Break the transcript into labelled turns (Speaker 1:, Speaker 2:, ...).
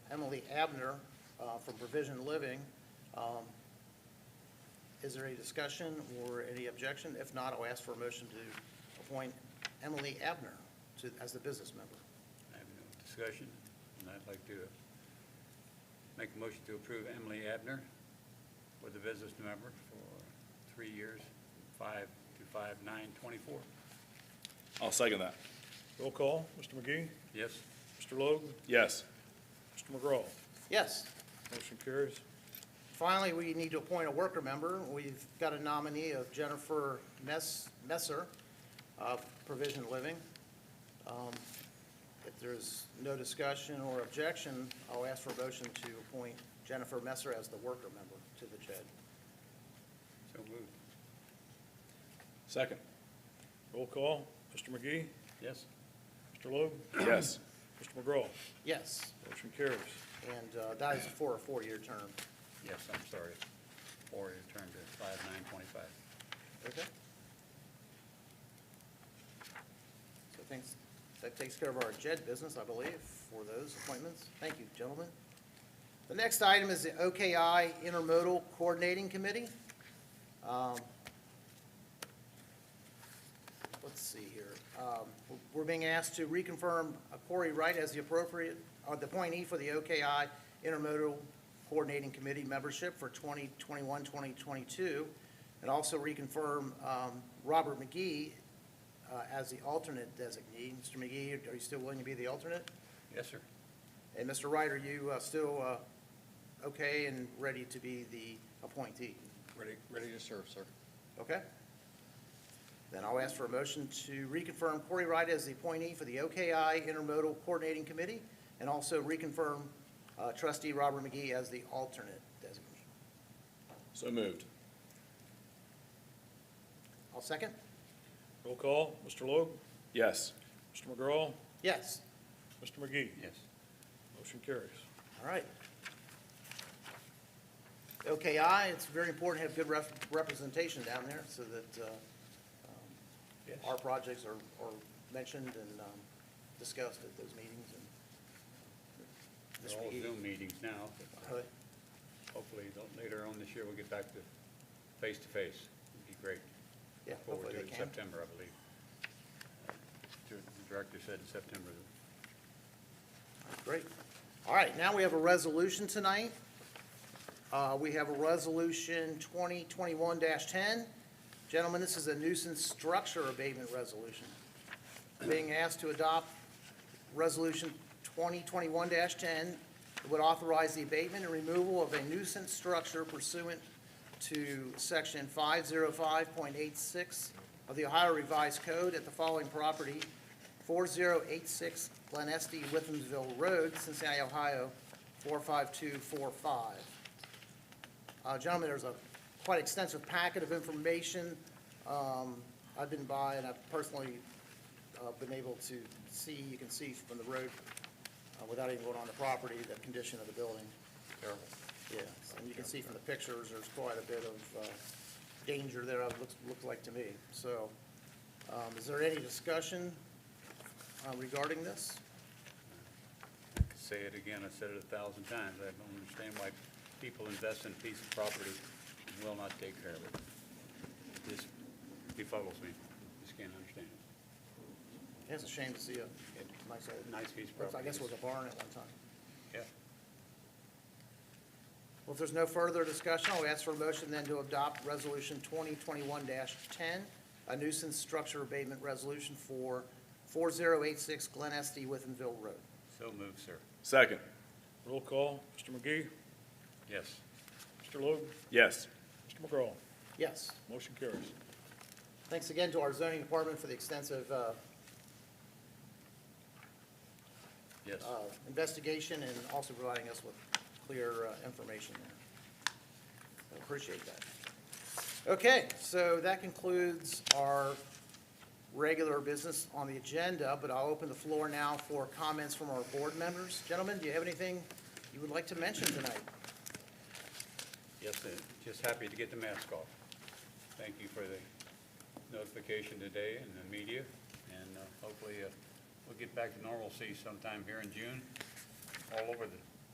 Speaker 1: Emily Abner uh, from Provision Living. Um, Is there any discussion or any objection? If not, I'll ask for a motion to appoint Emily Abner to, as the business member.
Speaker 2: I have no discussion, and I'd like to make a motion to approve Emily Abner with the business member for three years, five to five nine twenty-four.
Speaker 3: I'll second that.
Speaker 4: Roll call, Mr. McGee,
Speaker 2: Yes,
Speaker 4: Mr. Logue,
Speaker 3: Yes.
Speaker 4: Mr. McGraw.
Speaker 1: Yes.
Speaker 4: Motion carries.
Speaker 1: Finally, we need to appoint a worker member. We've got a nominee of Jennifer Mess, Messer of Provision Living. Um, If there's no discussion or objection, I'll ask for a motion to appoint Jennifer Messer as the worker member to the JED.
Speaker 2: so moved.
Speaker 3: Second.
Speaker 4: Roll call, Mr. McGee,
Speaker 2: Yes,
Speaker 4: Mr. Logue,
Speaker 3: Yes.
Speaker 4: Mr. McGraw.
Speaker 1: Yes,
Speaker 4: Motion carries.
Speaker 1: and uh, that is for a four-year term.
Speaker 2: yes, I'm sorry. Or return to five nine twenty-five.
Speaker 1: Okay? So thanks, that takes care of our JED business, I believe, for those appointments. Thank you, gentlemen. The next item is the OKI Intermodal Coordinating Committee. Um, Let's see here. Um, We're being asked to reconfirm Corey Wright as the appropriate, uh, the appointee for the OKI Intermodal Coordinating Committee membership for 2021, 2022, and also reconfirm um, Robert McGee uh, as the alternate designee. Mr. McGee, are you still willing to be the alternate?
Speaker 2: Yes, sir.
Speaker 1: And Mr. Wright, are you uh, still uh, okay and ready to be the appointee?
Speaker 5: Ready, ready to serve, sir.
Speaker 1: Okay? Then I'll ask for a motion to reconfirm Corey Wright as the appointee for the OKI Intermodal Coordinating Committee, and also reconfirm uh, trustee Robert McGee as the alternate designee.
Speaker 3: So moved.
Speaker 1: I'll second.
Speaker 4: Roll call, Mr. Logue,
Speaker 3: Yes.
Speaker 4: Mr. McGraw,
Speaker 1: Yes.
Speaker 4: Mr. McGee.
Speaker 2: Yes.
Speaker 4: Motion carries.
Speaker 1: All right. OKI, it's very important to have good ref- representation down there so that uh, um,
Speaker 2: Yes.
Speaker 1: our projects are are mentioned and um, discussed at those meetings. E. and-
Speaker 2: They're all
Speaker 1: Mr. McGee.
Speaker 2: Zoom meetings now, but
Speaker 1: Uh,
Speaker 2: hopefully don't- later on this year we'll get back to face-to-face. It'd be great.
Speaker 1: Yeah,
Speaker 2: Well, we'll
Speaker 1: hopefully
Speaker 2: do
Speaker 1: they
Speaker 2: it in
Speaker 1: can.
Speaker 2: September, I believe. The director said in September.
Speaker 1: Great. All right, now we have a resolution tonight. Uh, We have a resolution 2021-10. Gentlemen, this is a nuisance structure abatement resolution. Being asked to adopt Resolution 2021-10 that would authorize the abatement and removal of a nuisance structure pursuant to Section 505.86 of the Ohio Revised Code at the following property, 4086 Glen Estee, Withamsville Road, Cincinnati, Ohio, 45245. Uh, Gentlemen, there's a quite extensive packet of information um, I've been by, and I've personally uh, been able to see, you can see from the road, uh, without even going on the property, the condition of the building.
Speaker 2: Terrible.
Speaker 1: Yes, and you can see from the pictures, there's quite a bit of uh, danger there, it looks, looked like to me. So, um, is there any discussion uh, regarding this?
Speaker 2: I could Say it again, I said it a thousand times. I don't understand why people invest in a piece of property and will not take care of it. This befuddles me. Just can't understand it.
Speaker 1: It's a shame to see a, nice old.
Speaker 2: Nice piece of
Speaker 1: I
Speaker 2: property.
Speaker 1: guess it was a barn at one time.
Speaker 2: Yeah.
Speaker 1: Well, if there's no further discussion, I'll ask for a motion then to adopt Resolution 2021-10, a nuisance structure abatement resolution for 4086 Glen Estee, Withenville Road.
Speaker 2: So moved, sir.
Speaker 3: Second.
Speaker 4: Roll call, Mr. McGee,
Speaker 2: Yes.
Speaker 4: Mr. Logue,
Speaker 3: Yes.
Speaker 4: Mr. McGraw.
Speaker 1: Yes.
Speaker 4: Motion carries.
Speaker 1: Thanks again to our zoning department for the extensive uh,
Speaker 2: Yes.
Speaker 1: uh, investigation and also providing us with clear uh, information there. I Appreciate that. Okay, so that concludes our regular business on the agenda, but I'll open the floor now for comments from our board members. Gentlemen, do you have anything you would like to mention tonight?
Speaker 2: Yes, sir. Just happy to get the mask off. Thank you for the notification today and the media, and uh, hopefully uh, we'll get back to normalcy sometime here in June, all over the